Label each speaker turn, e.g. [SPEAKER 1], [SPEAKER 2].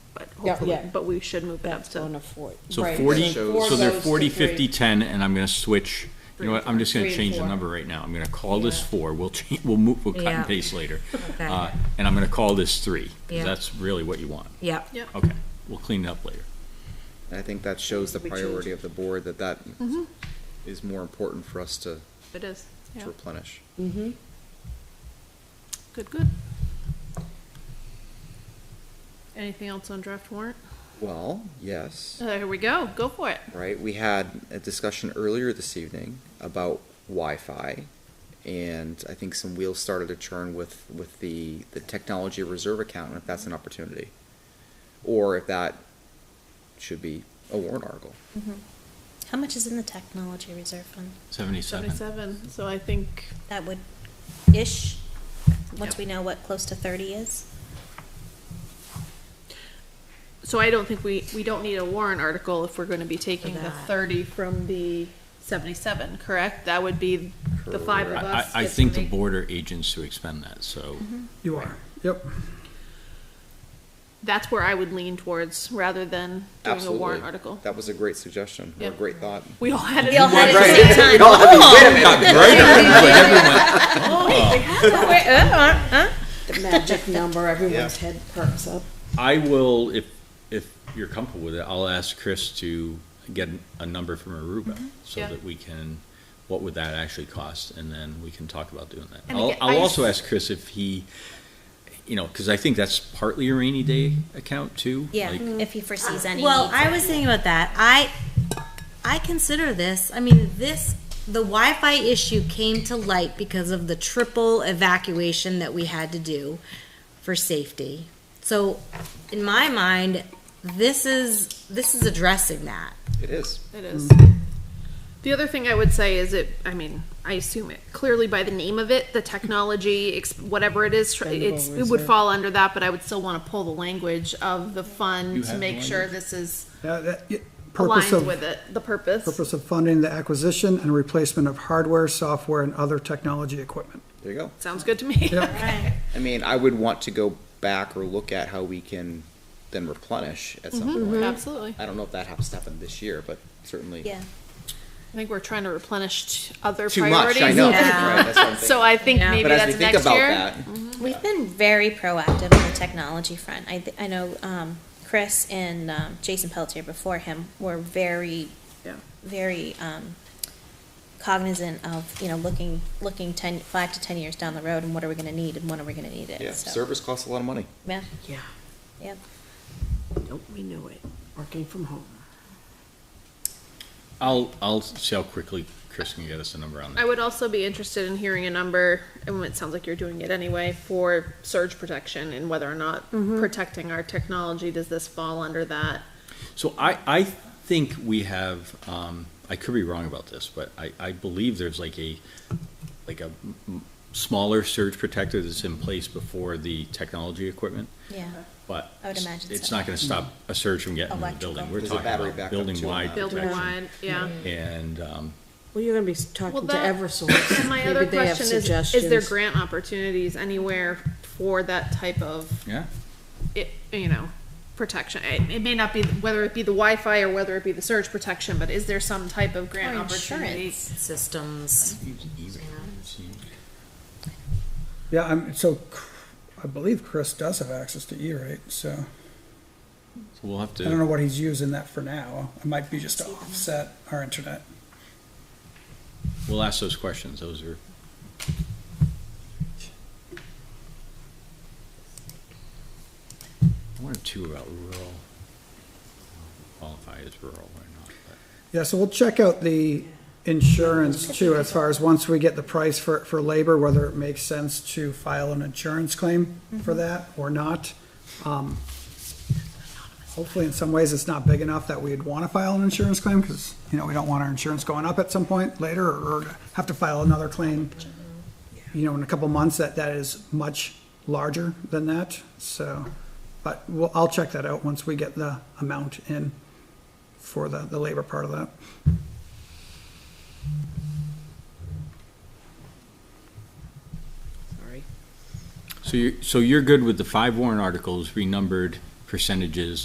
[SPEAKER 1] Yeah,
[SPEAKER 2] hopefully,
[SPEAKER 1] yeah.
[SPEAKER 2] but we should move it up
[SPEAKER 1] That's one
[SPEAKER 2] to,
[SPEAKER 1] of forty.
[SPEAKER 3] So
[SPEAKER 1] Right,
[SPEAKER 3] forty,
[SPEAKER 1] four
[SPEAKER 3] so they're
[SPEAKER 1] goes to
[SPEAKER 3] forty,
[SPEAKER 1] three.
[SPEAKER 3] fifty, ten, and I'm gonna switch, you know what, I'm just gonna
[SPEAKER 1] Three and
[SPEAKER 3] change the
[SPEAKER 1] four.
[SPEAKER 3] number right now. I'm gonna call this
[SPEAKER 1] Yeah.
[SPEAKER 3] four, we'll change, we'll move, we'll cut
[SPEAKER 4] Yeah.
[SPEAKER 3] and paste later.
[SPEAKER 4] Okay.
[SPEAKER 3] Uh, and I'm gonna call this three,
[SPEAKER 4] Yeah.
[SPEAKER 3] because that's really what you want.
[SPEAKER 4] Yep.
[SPEAKER 2] Yep.
[SPEAKER 3] Okay, we'll clean it up later.
[SPEAKER 5] And I think that shows the
[SPEAKER 1] We change
[SPEAKER 5] priority
[SPEAKER 1] it.
[SPEAKER 5] of the board, that that
[SPEAKER 2] Mm-hmm.
[SPEAKER 5] is more important for us to
[SPEAKER 2] it is,
[SPEAKER 5] to
[SPEAKER 2] yeah,
[SPEAKER 5] replenish.
[SPEAKER 1] Mm-hmm.
[SPEAKER 2] good, good. Anything else on draft warrant?
[SPEAKER 5] Well, yes,
[SPEAKER 2] Uh, here we go, go for it.
[SPEAKER 5] right, we had a discussion earlier this evening about Wi-Fi, and I think some wheels started to churn with, with the, the technology reserve account, and if that's an opportunity. Or if that should be a warrant article.
[SPEAKER 6] Mm-hmm. How much is in the technology reserve fund?
[SPEAKER 3] Seventy-seven.
[SPEAKER 2] Seventy-seven, so I think,
[SPEAKER 6] That would, ish, once
[SPEAKER 2] Yep.
[SPEAKER 6] we know what close to thirty is?
[SPEAKER 2] so I don't think we, we don't need a warrant article if we're gonna be taking the
[SPEAKER 4] that.
[SPEAKER 2] thirty from the seventy-seven, correct? That would be the five of
[SPEAKER 5] Correct.
[SPEAKER 3] I,
[SPEAKER 2] us.
[SPEAKER 3] I
[SPEAKER 2] gets to
[SPEAKER 3] think the
[SPEAKER 2] make-
[SPEAKER 3] board are agents to expend that, so,
[SPEAKER 1] Mm-hmm.
[SPEAKER 7] You are, yep.
[SPEAKER 2] That's where I would lean towards, rather than doing a
[SPEAKER 5] Absolutely.
[SPEAKER 2] warrant article.
[SPEAKER 5] That was a great suggestion, or a
[SPEAKER 2] Yeah.
[SPEAKER 5] great thought.
[SPEAKER 2] We all had it.
[SPEAKER 6] We all had it at the
[SPEAKER 5] Right.
[SPEAKER 6] same time.
[SPEAKER 1] The magic number, everyone's head perks up.
[SPEAKER 3] I will, if, if you're comfortable with it, I'll ask Chris to get a number from Aruba, so
[SPEAKER 2] Mm-hmm. Yeah.
[SPEAKER 3] that we can, what would that actually cost, and then we can talk about doing that.
[SPEAKER 2] And
[SPEAKER 3] I'll,
[SPEAKER 2] again, I
[SPEAKER 3] I'll also
[SPEAKER 2] just-
[SPEAKER 3] ask Chris if he, you know, because I think that's partly a rainy day
[SPEAKER 2] Mm-hmm.
[SPEAKER 3] account too.
[SPEAKER 6] Yeah,
[SPEAKER 3] like-
[SPEAKER 6] if he foresees any.
[SPEAKER 4] Well,
[SPEAKER 6] need for
[SPEAKER 4] I
[SPEAKER 6] it.
[SPEAKER 4] was thinking about that. I I consider this. I mean, this the Wi-Fi issue came to light because of the triple evacuation that we had to do for safety. So, in my mind, this is this is addressing that.
[SPEAKER 5] It is.
[SPEAKER 2] It is. The other thing I would say is it, I mean, I assume it clearly by the name of it, the technology, ex- whatever it is, tr- it's, it would fall under that, but I would still want to pull the language of the
[SPEAKER 3] You
[SPEAKER 2] fund to
[SPEAKER 3] have the
[SPEAKER 2] make sure
[SPEAKER 3] language?
[SPEAKER 2] this is
[SPEAKER 7] Now, Uh, that- y- Purpose
[SPEAKER 2] aligned with
[SPEAKER 7] of,
[SPEAKER 2] it, the purpose.
[SPEAKER 7] purpose of funding the acquisition and replacement of hardware, software, and other technology equipment.
[SPEAKER 5] There you go.
[SPEAKER 2] Sounds good to me.
[SPEAKER 7] Yep.
[SPEAKER 5] I mean, I would want to go back or look at how we can then replenish at some
[SPEAKER 2] Mm-hmm.
[SPEAKER 5] point.
[SPEAKER 2] Absolutely.
[SPEAKER 5] I don't know if that happens to happen this year, but certainly
[SPEAKER 6] Yeah.
[SPEAKER 2] I think we're trying to replenish t- other
[SPEAKER 5] too much.
[SPEAKER 2] priorities.
[SPEAKER 5] I know.
[SPEAKER 4] Yeah.
[SPEAKER 5] Right, that's what I'm thinking.
[SPEAKER 2] So I think
[SPEAKER 4] Yeah.
[SPEAKER 2] maybe
[SPEAKER 5] but as we
[SPEAKER 2] that's
[SPEAKER 5] think
[SPEAKER 2] next
[SPEAKER 5] about
[SPEAKER 2] year. Mm-hmm.
[SPEAKER 5] that,
[SPEAKER 6] We've been very proactive on the technology front. I, th- I know, um, Chris and, um, Jason Pelletier before him were very,
[SPEAKER 2] Yeah.
[SPEAKER 6] very, um, cognizant of, you know, looking, looking ten, five to ten years down the road and what are we gonna need and when are we gonna need it?
[SPEAKER 5] yeah,
[SPEAKER 6] So,
[SPEAKER 5] servers cost a lot of money.
[SPEAKER 6] Yeah,
[SPEAKER 1] Yeah,
[SPEAKER 6] yeah.
[SPEAKER 1] nope, we knew it, working from home.
[SPEAKER 3] I'll, I'll see how quickly Chris can get us a number on
[SPEAKER 2] I
[SPEAKER 3] that.
[SPEAKER 2] would also be interested in hearing a number, and it sounds like you're doing it anyway, for surge protection and whether or not
[SPEAKER 1] Mm-hmm.
[SPEAKER 2] protecting our technology, does this fall under that?
[SPEAKER 3] So I, I think we have, um, I could be wrong about this, but I, I believe there's like a, like a m- m- smaller surge protector that's in place before the technology equipment.
[SPEAKER 6] Yeah,
[SPEAKER 3] But
[SPEAKER 6] I would imagine
[SPEAKER 3] it's
[SPEAKER 6] so.
[SPEAKER 3] not going to stop a surge from getting in the
[SPEAKER 6] Electrical.
[SPEAKER 3] building. We're
[SPEAKER 5] There's a
[SPEAKER 3] talking
[SPEAKER 5] battery
[SPEAKER 3] about
[SPEAKER 5] backup too
[SPEAKER 3] building
[SPEAKER 5] on
[SPEAKER 3] wide
[SPEAKER 5] that.
[SPEAKER 2] Building
[SPEAKER 3] Uh, protection.
[SPEAKER 2] wide, yeah.
[SPEAKER 3] And um,
[SPEAKER 1] Well, you're gonna be s- talking to
[SPEAKER 2] that-
[SPEAKER 1] Eversource.
[SPEAKER 2] And my
[SPEAKER 1] Maybe
[SPEAKER 2] other
[SPEAKER 1] they have
[SPEAKER 2] question is, is there
[SPEAKER 1] suggestions.
[SPEAKER 2] grant opportunities anywhere for that type of,
[SPEAKER 3] yeah,
[SPEAKER 2] it, you know, protection? It, it may not be, whether it be the Wi-Fi or whether it be the surge protection, but is there some type of grant opportunity?
[SPEAKER 4] systems.
[SPEAKER 7] Yeah, I'm, so I believe Chris does have access to E-rate, so
[SPEAKER 3] so we'll have
[SPEAKER 7] I don't know
[SPEAKER 3] to,
[SPEAKER 7] what he's using that for now. It might be just to offset our internet.
[SPEAKER 3] we'll ask those questions. Those are, I wonder too about rural, qualify as rural or not. but-
[SPEAKER 7] Yeah, so we'll check out the insurance too, as far as once we get the price for, for labor, whether it makes sense to file an insurance claim for that or not. Um, Hopefully, in some ways, it's not big enough that we'd want to file an insurance claim, because, you know, we don't want our insurance going up at some point later, or have to file another claim, you know, in a couple months, that, that is much larger than that, so. But we'll, I'll check that out once we get the amount in for the, the labor part of that.
[SPEAKER 1] Sorry.
[SPEAKER 3] So you're, so you're good with the five warrant articles renumbered percentages